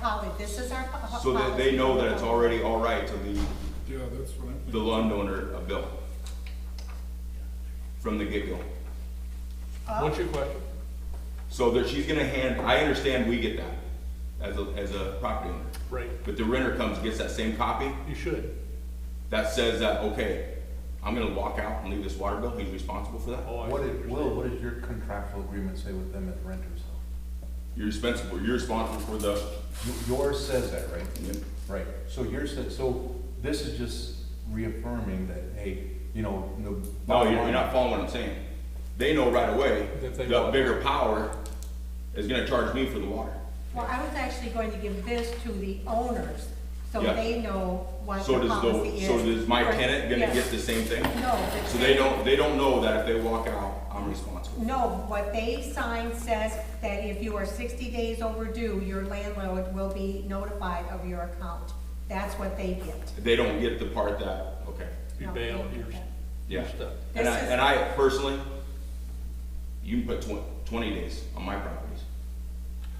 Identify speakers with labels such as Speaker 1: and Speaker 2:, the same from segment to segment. Speaker 1: poly, this is our. po-
Speaker 2: So that
Speaker 1: policy.
Speaker 2: they know that it's already all right to leave
Speaker 3: Yeah, that's what I'm
Speaker 2: the
Speaker 3: thinking.
Speaker 2: landowner a bill from the get-go.
Speaker 4: What's your question?
Speaker 2: So that she's gonna hand, I understand we get that as a, as a property owner.
Speaker 4: Right.
Speaker 2: But the renter comes, gets that same copy
Speaker 4: You should.
Speaker 2: that says that, okay, I'm gonna walk out and leave this water bill, he's responsible for that.
Speaker 4: Oh, I
Speaker 5: What did, Will,
Speaker 4: understand.
Speaker 5: what does your contractual agreement say with them as renters?
Speaker 2: You're responsible, you're responsible for the,
Speaker 5: Y- Yours says that, right? Right, so yours said, so this is just reaffirming that, hey, you know, the.
Speaker 2: no, you're you're not following what I'm saying. They know right away,
Speaker 4: That they
Speaker 2: the
Speaker 4: want-
Speaker 2: bigger power is gonna charge me for the water.
Speaker 1: Well, I was actually going to give this to the owners, so
Speaker 2: Yeah.
Speaker 1: they know what
Speaker 2: So
Speaker 1: the
Speaker 2: does
Speaker 1: policy
Speaker 2: the,
Speaker 1: is.
Speaker 2: so does my
Speaker 1: Right,
Speaker 2: tenant gonna
Speaker 1: yes.
Speaker 2: get the same thing?
Speaker 1: No. the
Speaker 2: So they
Speaker 1: tenant-
Speaker 2: don't, they don't know that if they walk out, I'm responsible.
Speaker 1: No, what they sign says that if you are sixty days overdue, your landlord will be notified of your account. That's what they get.
Speaker 2: They don't get the part that, okay,
Speaker 4: You
Speaker 1: No,
Speaker 4: bail,
Speaker 1: they
Speaker 4: you're,
Speaker 1: don't get
Speaker 2: yeah.
Speaker 4: you're stuck.
Speaker 2: And I,
Speaker 1: This is-
Speaker 2: and I personally, you can put twen- twenty days on my properties.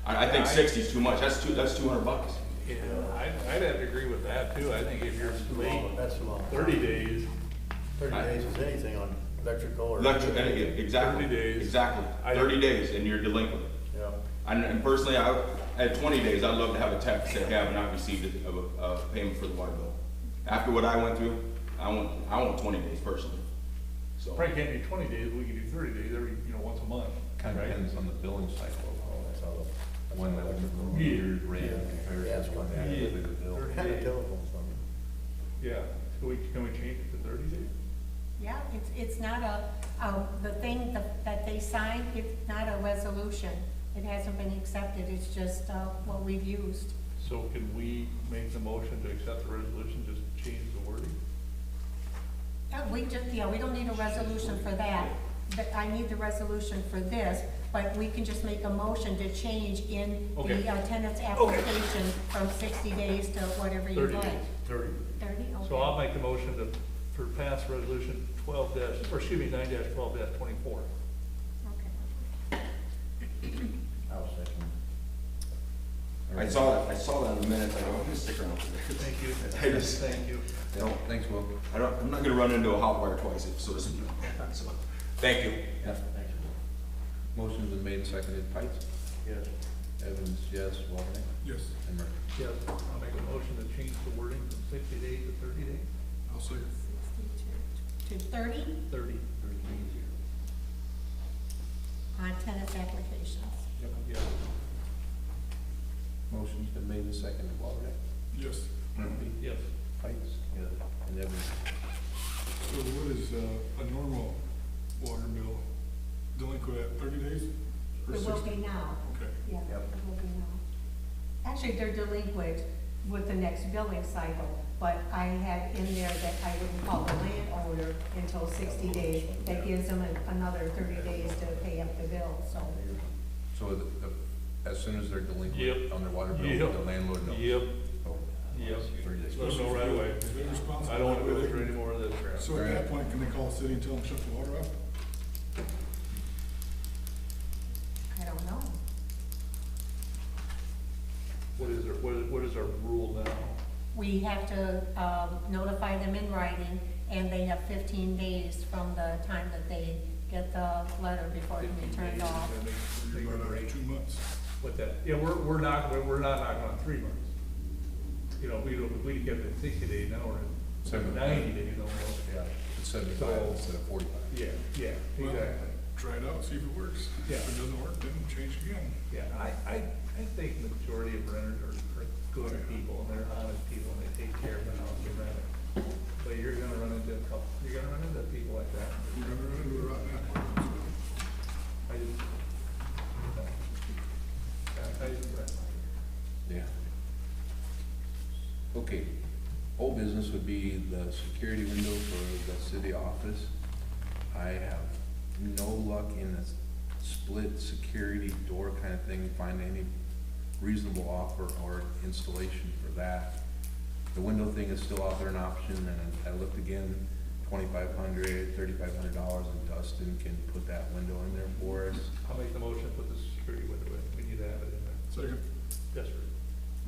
Speaker 2: I, I think
Speaker 4: Yeah, I-
Speaker 2: sixty is too much, that's two, that's two hundred bucks.
Speaker 4: Yeah, I'd, I'd have to agree with that too. I think if you're
Speaker 6: That's too long,
Speaker 4: late
Speaker 6: that's too long.
Speaker 4: thirty days,
Speaker 6: Thirty
Speaker 2: I-
Speaker 6: days is anything on electrical or.
Speaker 2: Electric, and it- exactly,
Speaker 4: 30 days.
Speaker 2: exactly,
Speaker 4: I-
Speaker 2: thirty days and you're delinquent.
Speaker 6: Yeah,
Speaker 2: And, and personally, I, at twenty days, I'd love to have a tax that have not received a, of a, a payment for the water bill. After what I went through, I want, I want twenty days personally, so.
Speaker 4: probably can't do twenty days, we can do thirty days every, you know, once a month,
Speaker 5: Kind of
Speaker 4: right?
Speaker 5: depends on the billing cycle,
Speaker 6: oh, that's all.
Speaker 5: when that
Speaker 6: Yeah.
Speaker 5: year's rate compared
Speaker 6: Yeah.
Speaker 5: to what the actual bill.
Speaker 6: They're kind of telephones on them.
Speaker 4: Yeah, so we, can we change it to thirty days?
Speaker 1: Yeah, it's, it's not a, um, the thing that, that they signed, it's not a resolution. It hasn't been accepted, it's just, uh, what we've used.
Speaker 4: So can we make the motion to accept the resolution, just change the wording?
Speaker 1: Uh, we just, yeah, we don't need a resolution for that, but I need the resolution for this, but we can just make a motion to change in
Speaker 4: Okay.
Speaker 1: the uh, tenant's application from sixty days to whatever you
Speaker 4: 30
Speaker 1: like.
Speaker 4: days.
Speaker 6: Thirty.
Speaker 1: Thirty,
Speaker 4: So I'll
Speaker 1: okay.
Speaker 4: make the motion to, for pass resolution twelve dash, or excuse me, nine dash twelve dash twenty-four.
Speaker 1: Okay.
Speaker 6: I was thinking.
Speaker 2: I saw that, I saw that in the minutes, I go, I'm gonna stick around for this.
Speaker 4: Thank you.
Speaker 2: I just-
Speaker 4: Thank you.
Speaker 2: I don't,
Speaker 5: Thanks, Will.
Speaker 2: I don't, I'm not gonna run into a hot wire twice, if so to speak. So, Thank you.
Speaker 5: Yeah. Motion's been made, and seconded, Pikes,
Speaker 6: Yes.
Speaker 5: Evans, yes, Walden,
Speaker 3: Yes,
Speaker 5: and Murphy.
Speaker 4: Yes, I'll make a motion to change the wording from sixty days to thirty days,
Speaker 3: I'll say,
Speaker 1: To thirty
Speaker 4: thirty.
Speaker 1: on tenant's applications.
Speaker 4: Yeah.
Speaker 5: Motion's been made, and seconded, Walden,
Speaker 3: yes.
Speaker 5: Murphy,
Speaker 4: Yes.
Speaker 5: Pikes, and Evans.
Speaker 3: So what is uh, a normal water bill delinquent at thirty days? or
Speaker 1: It will
Speaker 3: 60?
Speaker 1: be now.
Speaker 3: Okay,
Speaker 1: Yeah, it
Speaker 6: Yep.
Speaker 1: will be now. Actually, they're delinquent with the next billing cycle, but I had in there that I wouldn't call the landowner until sixty days. That gives them an- another thirty days to pay up the bill, so.
Speaker 5: So the, the, as soon as they're delinquent
Speaker 4: Yep.
Speaker 5: on their water bill,
Speaker 4: Yep.
Speaker 5: the landlord knows.
Speaker 4: Yep,
Speaker 5: Oh,
Speaker 4: yep.
Speaker 5: thirty days.
Speaker 4: Let them know right away.
Speaker 3: they're responsible.
Speaker 4: I don't want to go through any more of this crap.
Speaker 3: So at that point, can they call the city and tell them to shut the water off?
Speaker 1: I don't know.
Speaker 4: What is our, what is, what is our rule now?
Speaker 1: We have to um, notify them in writing, and they have fifteen days from the time that they get the letter before it can be
Speaker 4: 15
Speaker 1: turned
Speaker 4: days,
Speaker 1: off.
Speaker 4: and then
Speaker 3: You're
Speaker 4: they-
Speaker 3: running out of two months.
Speaker 4: What that, yeah, we're, we're not, we're- we're not knocking on three months. You know, we don't, we get it at sixty days, now we're at
Speaker 5: Seven.
Speaker 4: ninety days almost. Yeah.
Speaker 5: It's seventy-five
Speaker 4: So-
Speaker 5: instead of forty-five.
Speaker 4: Yeah, yeah,
Speaker 3: Well,
Speaker 4: exactly.
Speaker 3: Try it out, see if it works.
Speaker 4: Yeah.
Speaker 3: If it doesn't work, then change again.
Speaker 4: Yeah, I, I, I think the majority of renters are, are good people, and they're honest people, and they take care of the house they rent. it. But you're gonna run into a couple, you're gonna run into people like that.
Speaker 3: We're gonna run into a rotten apple.
Speaker 4: I just. I, I just rent.
Speaker 5: Yeah. Okay, old business would be the security window for the city office. I have no luck in this split security door kind of thing, find any reasonable offer or installation for that. The window thing is still out there an option, and I looked again, twenty-five hundred, thirty-five hundred dollars, and Dustin can put that window in there for us.
Speaker 4: I'll make the motion, put the security window in, we need to have it in there,
Speaker 3: Second,
Speaker 4: desperate.